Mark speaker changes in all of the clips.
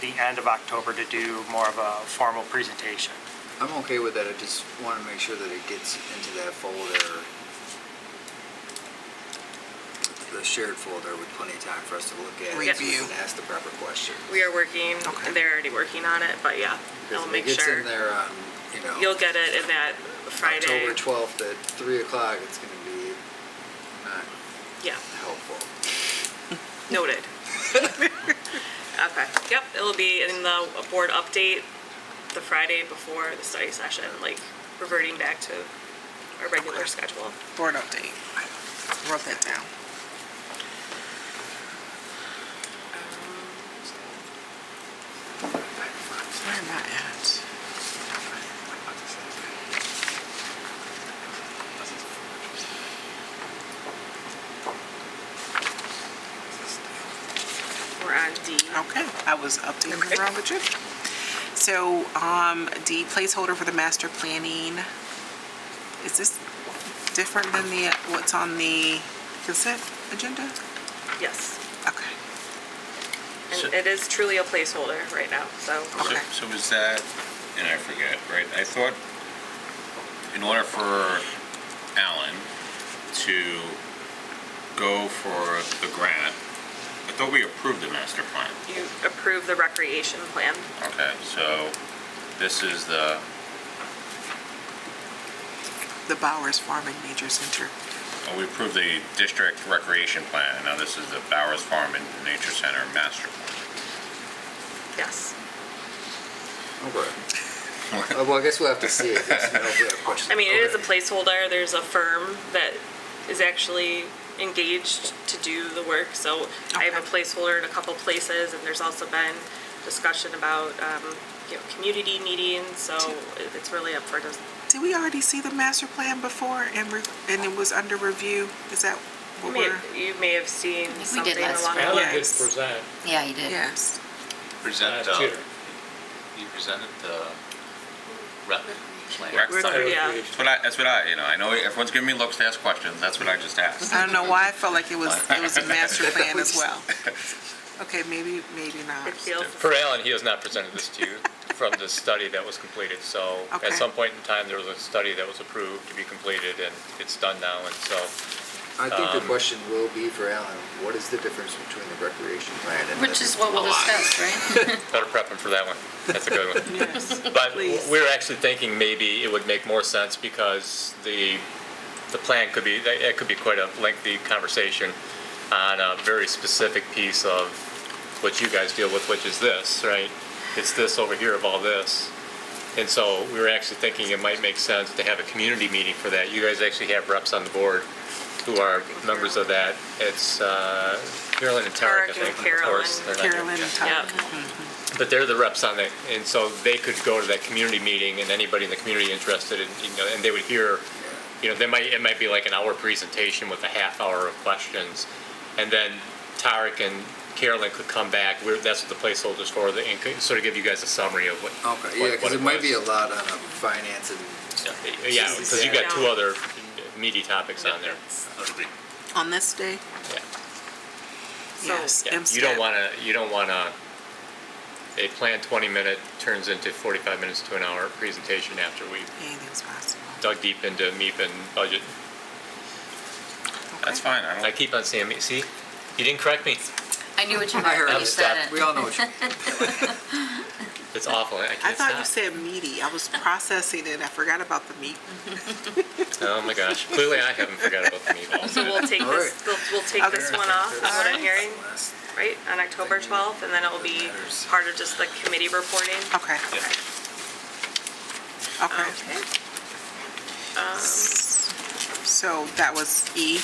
Speaker 1: the end of October to do more of a formal presentation.
Speaker 2: I'm okay with that, I just want to make sure that it gets into that folder, the shared folder with plenty of time for us to look at. it
Speaker 3: Review.
Speaker 2: And ask the proper questions.
Speaker 3: We are working,
Speaker 4: Okay.
Speaker 3: they're already working on it, but yeah,
Speaker 2: Because
Speaker 3: I'll
Speaker 2: if
Speaker 3: make
Speaker 2: It gets in
Speaker 3: sure.
Speaker 2: there on, you know.
Speaker 3: You'll get it in that Friday.
Speaker 2: October 12th at 3 o'clock, it's going to be not
Speaker 3: Yeah,
Speaker 2: helpful.
Speaker 3: noted. Okay, yep, it'll be in the board update the Friday before the study session, like reverting back to our regular schedule.
Speaker 4: Board update. Wrote that down. Where am I at?
Speaker 3: We're on D.
Speaker 4: Okay, I was updating What's wrong with you. So, um, the placeholder for the master planning, is this different than the, what's on the consent agenda?
Speaker 3: Yes,
Speaker 4: Okay,
Speaker 3: and it is truly a placeholder right now, so.
Speaker 5: So-
Speaker 4: Okay.
Speaker 5: So was that, and I forget, right, I thought in order for Alan to go for the grant, I thought we approved the master plan.
Speaker 3: You approve the recreation plan.
Speaker 5: Okay, so this is the,
Speaker 4: the Bowers Farming Major Center.
Speaker 5: oh, we approved the district recreation plan, and now this is the Bowers Farm and Nature Center master plan.
Speaker 3: Yes.
Speaker 2: Okay. Uh, Well, I guess we'll have to see. I guess, you know, if we have questions.
Speaker 3: I mean, it is a
Speaker 2: Okay.
Speaker 3: placeholder. There's a firm that is actually engaged to do the work. So I have a placeholder in a couple places, and there's also been discussion about, um, you know, community meetings. So it- it's really up for, dis-
Speaker 4: Did we already see the master plan before and, re- and it was under review? Is that
Speaker 3: you
Speaker 4: what
Speaker 3: may,
Speaker 4: we're?
Speaker 3: you may have seen
Speaker 6: we did
Speaker 3: something
Speaker 6: last
Speaker 3: along
Speaker 4: fall.
Speaker 3: the
Speaker 4: Yeah.
Speaker 7: Alan
Speaker 4: Yes.
Speaker 7: did present
Speaker 6: Yeah, you did.
Speaker 4: Yes.
Speaker 8: Present,
Speaker 7: last
Speaker 8: uh,
Speaker 7: year.
Speaker 8: you presented the rep plan.
Speaker 5: Rec
Speaker 4: We're-
Speaker 5: stuff.
Speaker 3: Yeah.
Speaker 5: That's what I, that's what I, you know, I know everyone's giving me looks to ask questions, that's what I just asked.
Speaker 4: I don't know why I felt like it was, it was a master plan as well. Okay, maybe, maybe not.
Speaker 3: It feels,
Speaker 7: For Alan, he has not presented this to you from the study that was completed. So
Speaker 4: Okay.
Speaker 7: at some point in time, there was a study that was approved to be completed, and it's done now. And so
Speaker 2: I think the
Speaker 7: um,
Speaker 2: question will be for Alan, what is the difference between the recreation plan and?
Speaker 6: Which
Speaker 2: the-
Speaker 6: is what
Speaker 2: A
Speaker 6: we'll
Speaker 2: lot.
Speaker 6: discuss, right?
Speaker 7: better prep him for that one. That's a good one.
Speaker 4: Yes.
Speaker 7: But
Speaker 4: Please.
Speaker 7: we're actually thinking maybe it would make more sense because the, the plan could be, it could be quite a lengthy conversation on a very specific piece of what you guys deal with, which is this, right? It's this over here of all this. And so we were actually thinking it might make sense to have a community meeting for that. You guys actually have reps on the board who are members of that. It's uh, Carolyn and Tarek, I
Speaker 3: Tarek and
Speaker 7: think, of course.
Speaker 3: Carolyn.
Speaker 7: They're not here.
Speaker 4: Carolyn and Todd.
Speaker 3: yeah.
Speaker 7: But they're the reps on it, and so they could go to that community meeting, and anybody in the community interested, in you know, and they would hear, you know, they might, it might be like an hour presentation with a half hour of questions, and then Tarek and Carolyn could come back, we're, that's what the placeholder's for, the- and could sort of give you guys a summary of what.
Speaker 2: Okay, yeah,
Speaker 7: what-
Speaker 2: because
Speaker 7: what
Speaker 2: it might be a
Speaker 7: was.
Speaker 2: lot on a finance and,
Speaker 7: Yeah, because you got two
Speaker 3: Yeah.
Speaker 7: other meaty topics on there.
Speaker 4: On this day?
Speaker 7: Yeah.
Speaker 4: Yes.
Speaker 7: Yeah, You
Speaker 4: MSTEP.
Speaker 7: don't want to, you don't want to, a planned 20-minute turns into 45 minutes to an hour presentation after we
Speaker 4: Anything's possible.
Speaker 7: dug deep into MEP and budget.
Speaker 5: That's fine, I
Speaker 7: I
Speaker 5: don't,
Speaker 7: keep on saying, me- see, you didn't correct me.
Speaker 6: I knew what you meant
Speaker 2: heard
Speaker 6: when
Speaker 2: it.
Speaker 6: you said
Speaker 2: we
Speaker 6: it.
Speaker 2: all know what you,
Speaker 7: It's awful, I
Speaker 4: I
Speaker 7: can't
Speaker 4: thought you
Speaker 7: stop.
Speaker 4: said meaty. I was processing it. I forgot about the meat.
Speaker 7: Oh my gosh, clearly I haven't forgot about the meatballs.
Speaker 3: So we'll take
Speaker 2: All
Speaker 3: this,
Speaker 2: right.
Speaker 3: we'll, we'll take this one off, is what I'm hearing,
Speaker 2: uh,
Speaker 3: right, on October 12th, and then it will be part of just the committee reporting.
Speaker 4: Okay.
Speaker 7: Yeah.
Speaker 4: Okay. Um,
Speaker 3: Okay.
Speaker 4: So that was E.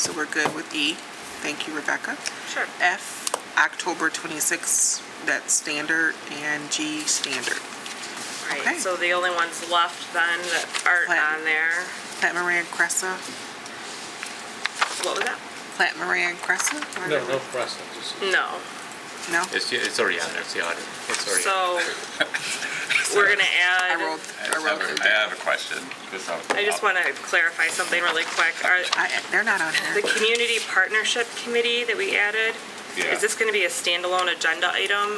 Speaker 4: So we're good with E. Thank you, Rebecca.
Speaker 3: Sure.
Speaker 4: F, October 26th, that's standard, and G, standard. Okay.
Speaker 3: Right, so the only ones left then that aren't
Speaker 4: Plan.
Speaker 3: on there,
Speaker 4: Plant Moran Cressa,
Speaker 3: what was that?
Speaker 4: Plant Moran Cressa?
Speaker 7: No,
Speaker 4: Or-
Speaker 7: no. process.
Speaker 3: No,
Speaker 4: No?
Speaker 7: It's, it's already on there, it's the audit, it's already. on
Speaker 3: so we're gonna
Speaker 4: I
Speaker 3: add,
Speaker 4: rolled,
Speaker 5: I
Speaker 4: I
Speaker 5: just have
Speaker 4: rolled.
Speaker 5: a-
Speaker 4: it
Speaker 5: I
Speaker 4: down.
Speaker 5: have a question. Just have a-
Speaker 3: I just wanna clarify something really quick. Are,
Speaker 4: I, they're not on
Speaker 3: the
Speaker 4: here.
Speaker 3: community partnership committee that we added,
Speaker 5: Yeah.
Speaker 3: Is this going to be a standalone agenda item